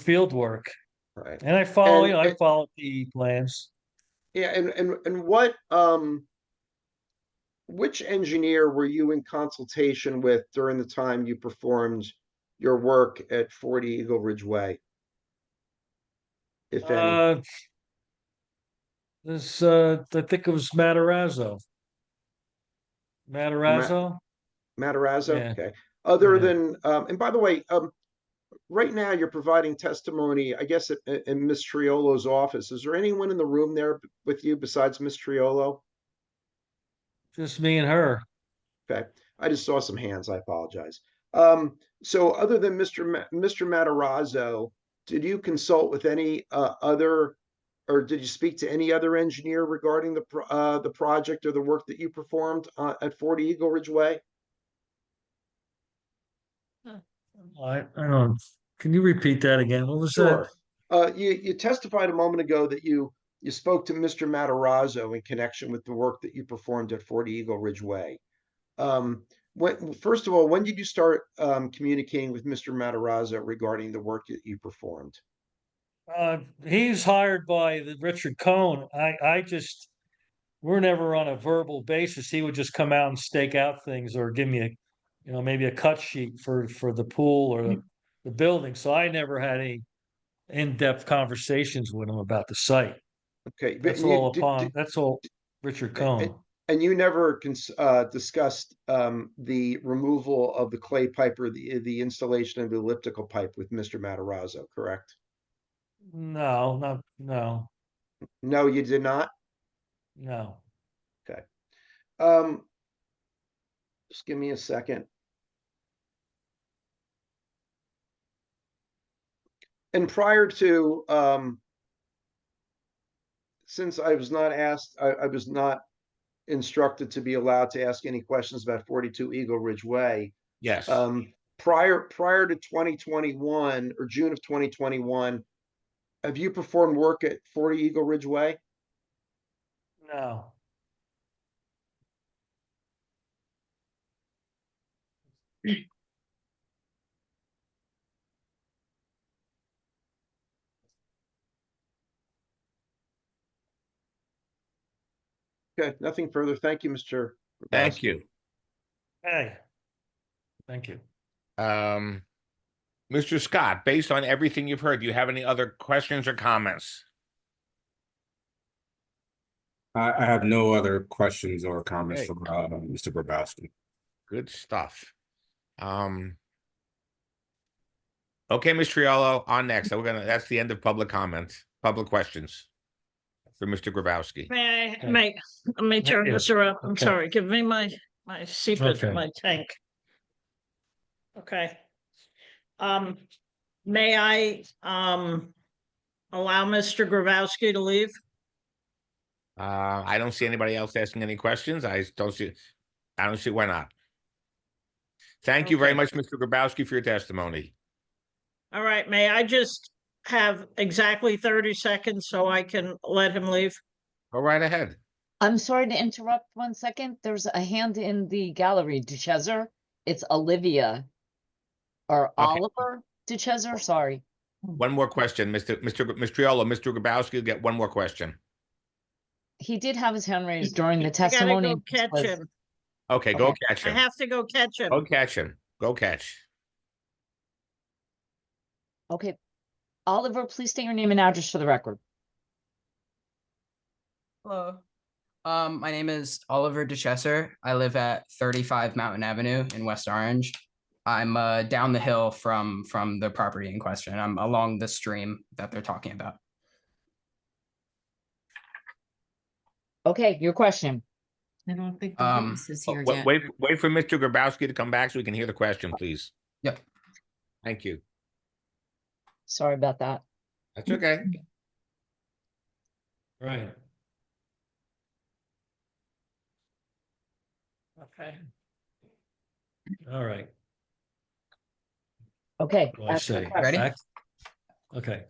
field work. Right. And I follow, And you know, I it- follow the plans. Yeah, and and and what um which engineer were you in consultation with during the time you performed your work at 40 Eagle Ridge Way? If any, Uh, This, uh, I think it was Matarazzo. Matarazzo? Matarazzo? yeah, Okay. Other yeah. than um and by the way, um right now you're providing testimony, I guess, at- at- in Miss Triolo's office. Is there anyone in the room there b- with you besides Miss Triolo? Just me and her. Okay, I just saw some hands. I apologize. Um, so other than Mr. Ma- Mr. Matarazzo, did you consult with any uh, other, or did you speak to any other engineer regarding the pro- uh, the project or the work that you performed uh, at 40 Eagle Ridge Way? I, I don't, can you repeat that again? What was that? Sure. Uh, you you testified a moment ago that you you spoke to Mr. Matarazzo in connection with the work that you performed at 40 Eagle Ridge Way. Um, when, first of all, when did you start um, communicating with Mr. Matarazzo regarding the work that you performed? Uh, he's hired by the Richard Cohn. I, I just, we're never on a verbal basis. He would just come out and stake out things or give me a, you know, maybe a cut sheet for, for the pool or Hmm. the, the building. So I never had any in-depth conversations with him about the site. Okay, but That's you all did- upon, did- that's all Richard Uh, uh, Cohn. And you never cons- uh, discussed um, the removal of the clay pipe or the, the installation of the elliptical pipe with Mr. Matarazzo, correct? No, not, no, No, you did not? no. Um, just give me a second. And prior to, um, since I was not asked, I, I was not instructed to be allowed to ask any questions about 42 Eagle Ridge Way. Yes, Um, prior, prior to twenty twenty-one or June of twenty twenty-one, have you performed work at forty Eagle Ridge Way? No. Okay, nothing further. Thank you, Mr. thank you. Hey. Thank you. Um, Mr. Scott, based on everything you've heard, do you have any other questions or comments? I, I have no other questions or comments Okay. for, uh, Mr. Grabowski. Good stuff. Um. Okay, Ms. Triolo, on next. We're gonna, that's the end of public comments, public questions for Mr. Grabowski. May I, Okay. may, may I turn Yeah, this around? I'm okay. sorry, give me my, my seepage, Okay. my tank. Okay. Um, may I, um, allow Mr. Grabowski to leave? Uh, I don't see anybody else asking any questions. I don't see, I don't see why not. Thank you very Okay. much, Mr. Grabowski, for your testimony. All right, may I just have exactly thirty seconds so I can let him leave? Go right ahead. I'm sorry to interrupt one second. There's a hand in the gallery, Duchesser. It's Olivia. Or Oliver Duchesser, sorry. One more question, Mr. Mr. Gr- Mistriolo, Mr. Grabowski, will get one more question. He did have his hand raised during the I gotta testimony. go catch was- him. Okay, go Okay. catch I him. have to go catch him. Go catch him. Go catch. Okay. Oliver, please state your name and address for the record. Hello. Um, my name is Oliver DeChesser. I live at 35 Mountain Avenue in West Orange. I'm uh, down the hill from from the property in question. I'm along the stream that they're talking about. Okay, your question. I don't think the Um, witness is Oh, here wa- yet. Wait, wait for Mr. Grabowski to come back so we can hear the question, please. Yep. Thank you. Sorry about that. That's okay. Right. Okay. All right. Okay. Well, I ask your say, question. Ready? back- Okay,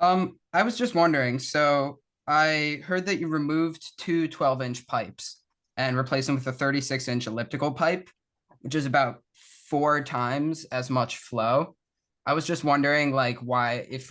Um, I was just wondering. So I heard that you removed two 12 inch pipes and replaced them with a 36 inch elliptical pipe, which is about four times as much flow. I was just wondering, like, why if